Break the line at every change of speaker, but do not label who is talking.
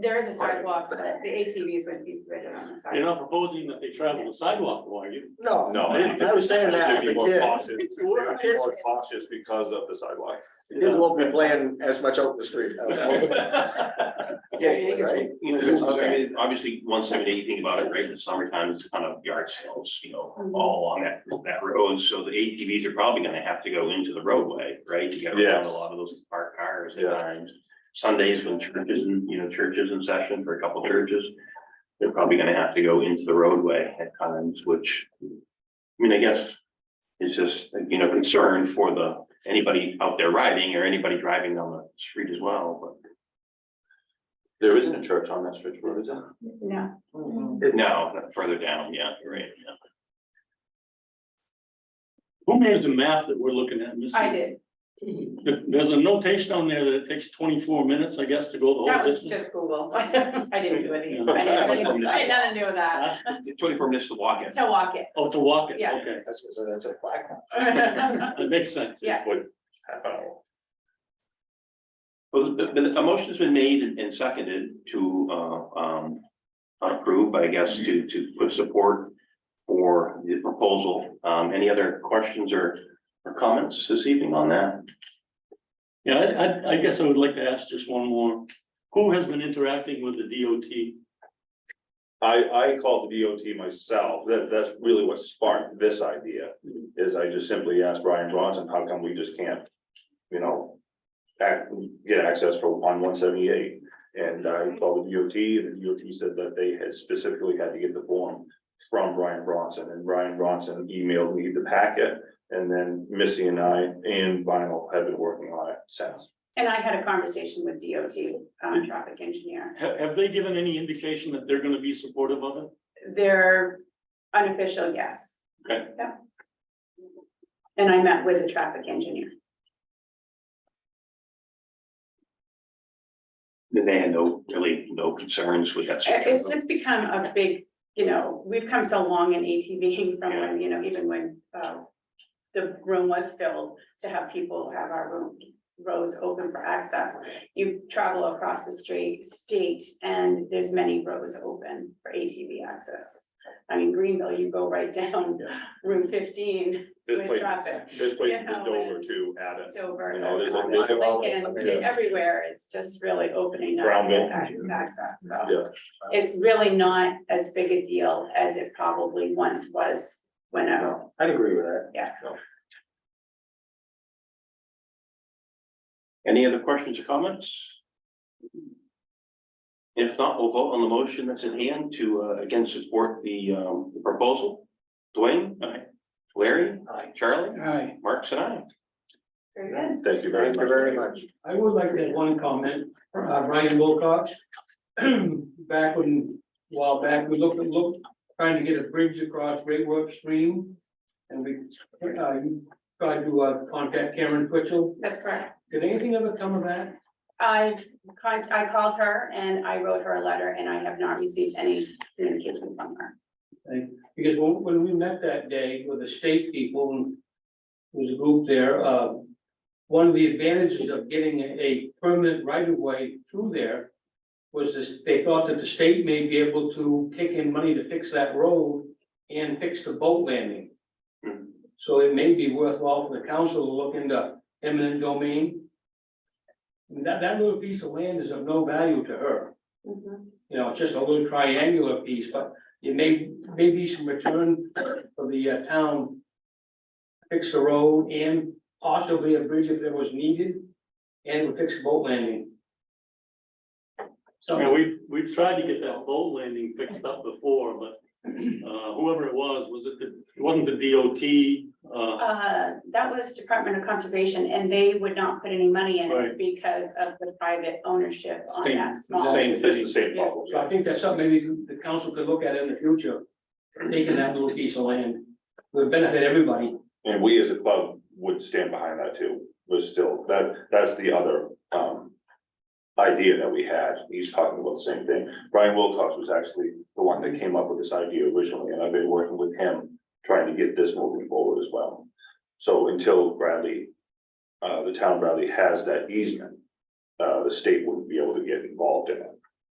there is a sidewalk, but the ATVs would be ridden on the
You're
sidewalk.
not proposing that they travel the sidewalk, though, are you?
No.
No, I
I was saying that with
they'd be
the
more
kids.
cautious,
Well,
they'd be more cautious because of the sidewalk.
Kids won't be playing as much out in the street.
Yeah, you can-
Right?
you know, I
Okay.
mean, obviously, one seventy, you think about it, right, in the summertime, it's kind of yard sales, you know, all along that, that road, so the ATVs are probably gonna have to go into the roadway, right? You gotta run
Yes.
a lot of those parked cars
Yeah.
at times. Sundays when churches, and you know, churches in session for a couple churches, they're probably gonna have to go into the roadway at times, which, I mean, I guess it's just, you know, concern for the, anybody out there riding or anybody driving down the street as well, but.
There isn't a church on that stretch of road, is there?
No,
No, not further down, yeah, you're right, yeah.
Who made the map that we're looking at, Missy?
I did.
There- There's a notation on there that it takes twenty-four minutes, I guess, to go the
That
whole
was
distance.
just Google. I didn't do anything. I didn't- I had nothing to do with that.
The Twenty-four minutes to walk in.
To walk it.
Oh, to walk it,
Yeah.
okay,
That's, so that's a black one.
that makes sense.
Yeah.
What, half an hour?
Well, the, the, a motion's been made and- and seconded to, uh, um, approve, I guess, to, to put support for the proposal. Um, any other questions or, or comments this evening on that?
Yeah, I, I, I guess I would like to ask just one more. Who has been interacting with the DOT?
I, I called the DOT myself, that, that's really what sparked this idea,
Mm-hmm.
is I just simply asked Brian Bronson, how come we just can't, you know, ac get access for on one seventy-eight, and I called the DOT, and the DOT said that they had specifically had to get the form from Brian Bronson, and Brian Bronson emailed me the packet, and then Missy and I and Vinyl have been working on it since.
And I had a conversation with DOT, um, traffic engineer.
Have, have they given any indication that they're gonna be supportive of it?
They're unofficial, yes.
Okay.
Yeah. And I met with the traffic engineer.
They had no, really no concerns with that.
It- Uh, It's just become a big, you know, we've come so long in ATVing from when, you know, even when, uh, the room was filled to have people have our room, roads open for access. You travel across the street, state, and there's many roads open for ATV access. I mean, Greenville, you go right down Route fifteen
There's
With
places-
traffic.
There's places
Yeah.
in Dover too, at it,
Dover.
you know, there's,
Oakland,
there's
Well, I mean,
Lincoln, everywhere, it's just really opening up
Brownville.
ac- access,
Yeah.
so. It's really not as big a deal as it probably once was when I,
I'd agree with that.
Any other questions or comments? If not, we'll vote on the motion that's at hand to, uh, again, support the, um, the proposal. Dwayne? Aye. Larry?
Aye.
Charlie?
Hi,
Marks and I.
very good.
thank you very much.
Thank you very much.
I would like to add one comment, uh, Brian Wilcox. Back when, a while back, we looked, looked, trying to get a bridge across Great Work Stream. And we, uh, tried to uh, contact Cameron Twitchell.
That's correct.
Did anything ever come of that?
I, con- I called her and I wrote her a letter and I have not received any communication from her.
Because when, when we met that day with the state people, and there was a group there, uh, one of the advantages of getting a- a permanent right of way through there was this, they thought that the state may be able to kick in money to fix that road and fix the boat landing.
Hmm.
So it may be worthwhile for the council to look into eminent domain. And That, that little piece of land is of no value to her
Mm-hmm.
you know, just a little triangular piece, but it may, may be some return for the uh, town. Fix the road and possibly a bridge if there was needed, and would fix the boat landing.
I
So,
mean, we've, we've tried to get that boat landing fixed up before, but, uh, whoever it was, was it the, it wasn't the DOT, uh,
Uh, that was Department of Conservation and they would not put any money in it
Right.
because of the private ownership on
Same-
that Oh, small.
Same
It's
thing.
the same problem.
so I think that's something maybe the council could look at in the future, taking that little piece of land, would benefit everybody.
And we as a club would stand behind that too, was still, that, that's the other, um. Idea that we had, he's talking about the same thing, Brian Wilcox was actually the one that came up with this idea originally, and I've been working with him. Trying to get this moving forward as well, so until Bradley, uh, the town Bradley has that easement. Uh, the state wouldn't be able to get involved in it,